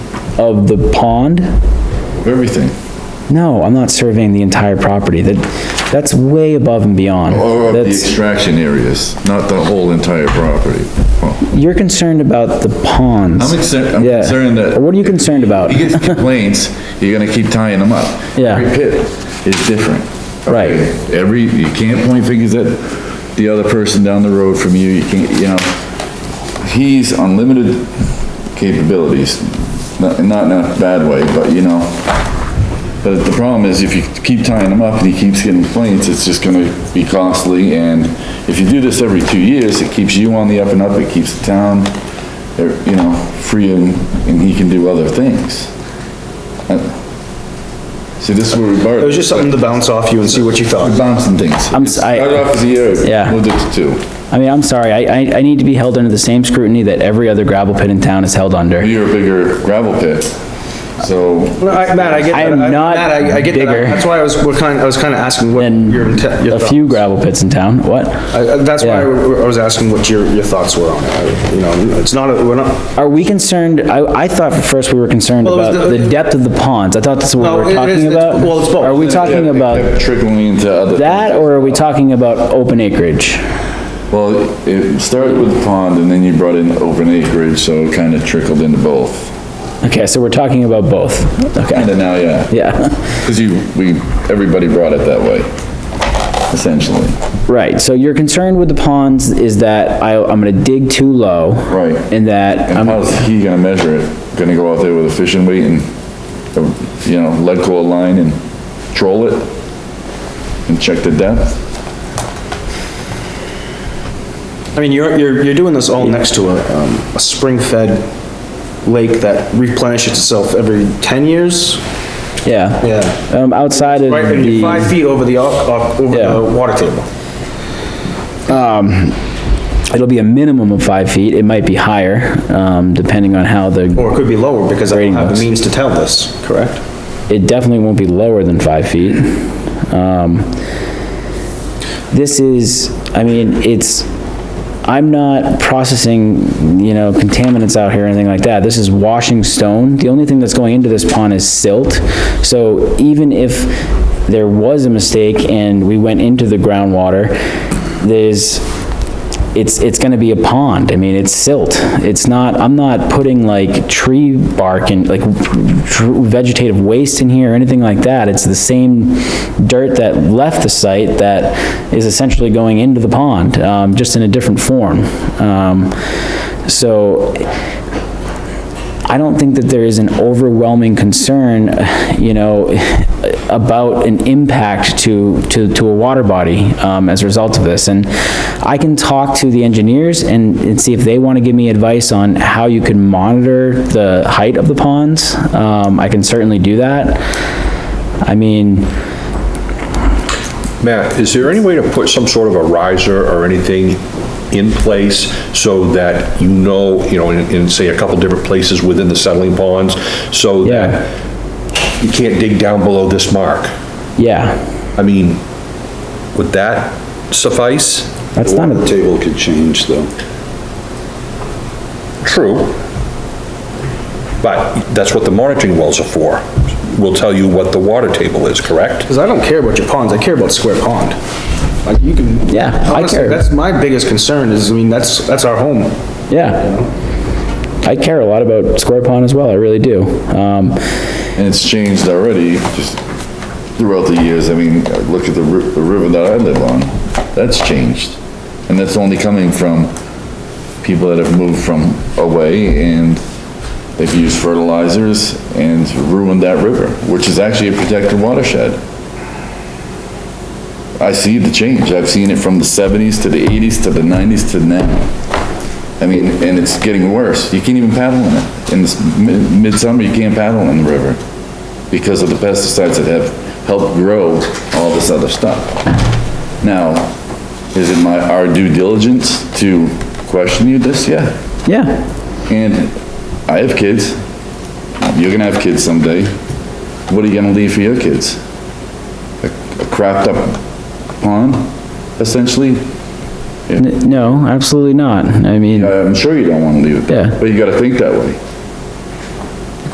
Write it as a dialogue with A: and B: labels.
A: of the pond?
B: everything.
A: No, I'm not surveying the entire property. That, that's way above and beyond.
B: Or of the
A: That's,
B: extraction areas, not the whole entire property. Well,
A: you're concerned about the ponds.
B: I'm concerned, I'm
A: Yeah.
B: concerned that.
A: What are you concerned about?
B: You get complaints, you're gonna keep tying them up.
A: Yeah.
B: Every pit is different.
A: Right.
B: Okay, Every, you can't point fingers at the other person down the road from you, you can't, you know, he's unlimited capabilities, not, not in a bad way, but you know. But the problem is if you keep tying them up and he keeps getting complaints, it's just gonna be costly and if you do this every two years, it keeps you on the up and up, it keeps the town, er, you know, free and, and he can do other things. Uh, See, this is where we
C: It
B: borrow.
C: was just something to bounce off you and see what you thought.
B: Bouncing things.
A: I'm s- I-
B: Started off as a year.
A: Yeah.
B: Moved it to two.
A: I mean, I'm sorry, I, I, I need to be held under the same scrutiny that every other gravel pit in town is held under.
B: You're a bigger gravel pit, so.
C: No, I- Matt, I get
A: I
C: that.
A: am
C: I-
A: not
C: Matt, I- I get that.
A: bigger.
C: That's why I was, we're kind, I was kind of asking what
A: And
C: your intent, your
A: a
C: thought.
A: few gravel pits in town, what?
C: I- I- That's why I
A: Yeah.
C: w- I was asking what your, your thoughts were on it. I- You know, it's not, a- we're not,
A: Are we concerned, I, I thought at first we were concerned
C: Well, it was
A: about
C: the-
A: the depth of the ponds. I thought that's what
C: No,
A: we
C: it
A: were
C: is-
A: talking
C: it's-
A: about.
C: well, it's both.
A: Are we talking
B: Yeah, it
A: about
B: kept Trickling into other.
A: that, or are we talking about open acreage?
B: Well, it started with the pond and then you brought in open acreage, so it kind of trickled into both.
A: Okay, so we're talking about both. Okay,
B: And then now, yeah,
A: yeah,
B: because you, we, everybody brought it that way, essentially.
A: right. So your concern with the ponds is that I, I'm gonna dig too low.
B: Right.
A: And that, um,
B: And
A: I'm,
B: how's he gonna measure it? Gonna go out there with a fishing weight and, uh, you know, lead core line and troll it? And check the depth?
C: I mean, you're, you're, you're doing this all next to a, um, a spring-fed lake that replenishes itself every ten years?
A: yeah.
C: Yeah.
A: Um, outside of
C: Right, and you're five
A: the,
C: feet over the, o- o- over
A: Yeah.
C: the water table.
A: it'll be a minimum of five feet. It might be higher, um, depending on how the,
C: Or it could be lower because I don't
A: Grading
C: have the
A: looks.
C: means to tell this, correct?
A: it definitely won't be lower than five feet. Um, this is, I mean, it's, I'm not processing, you know, contaminants out here or anything like that. This is washing stone. The only thing that's going into this pond is silt. So even if there was a mistake and we went into the groundwater, there's, it's, it's gonna be a pond. I mean, it's silt. It's not, I'm not putting like tree bark and like tr- vegetative waste in here or anything like that. It's the same dirt that left the site that is essentially going into the pond, um, just in a different form. Um, so I don't think that there is an overwhelming concern, you know, about an impact to, to, to a water body, um, as a result of this. And I can talk to the engineers and, and see if they want to give me advice on how you can monitor the height of the ponds. Um, I can certainly do that. I mean,
D: Matt, is there any way to put some sort of a riser or anything in place so that you know, you know, in, in say a couple different places within the settling ponds, so
A: yeah,
D: that you can't dig down below this mark?
A: yeah,
D: I mean, would that suffice?
A: that's not a,
E: Table could change though.
D: True. But that's what the monitoring wells are for. Will tell you what the water table is, correct?
C: Because I don't care about your ponds, I care about Square Pond. Like, you can.
A: Yeah, I
C: Honestly,
A: care.
C: That's my biggest concern is, I mean, that's, that's our home.
A: yeah. I care a lot about Square Pond as well, I really do. Um,
B: And it's changed already, just throughout the years. I mean, look at the ri- the river that I live on. That's changed. And that's only coming from people that have moved from away and they've used fertilizers and ruined that river, which is actually a protected watershed. I see the change. I've seen it from the seventies to the eighties to the nineties to now. I mean, and it's getting worse. You can't even paddle in it. In this mi- midsummer, you can't paddle in the river because of the pesticides that have helped grow all this other stuff. Now, is it my, our due diligence to question you this? Yeah.
A: yeah.
B: And I have kids. You're gonna have kids someday. What are you gonna leave for your kids? A a crapped up pond, essentially?
A: N- No, absolutely not. I mean,
B: I'm sure you don't wanna leave it there,
A: Yeah.
B: but you gotta think that way.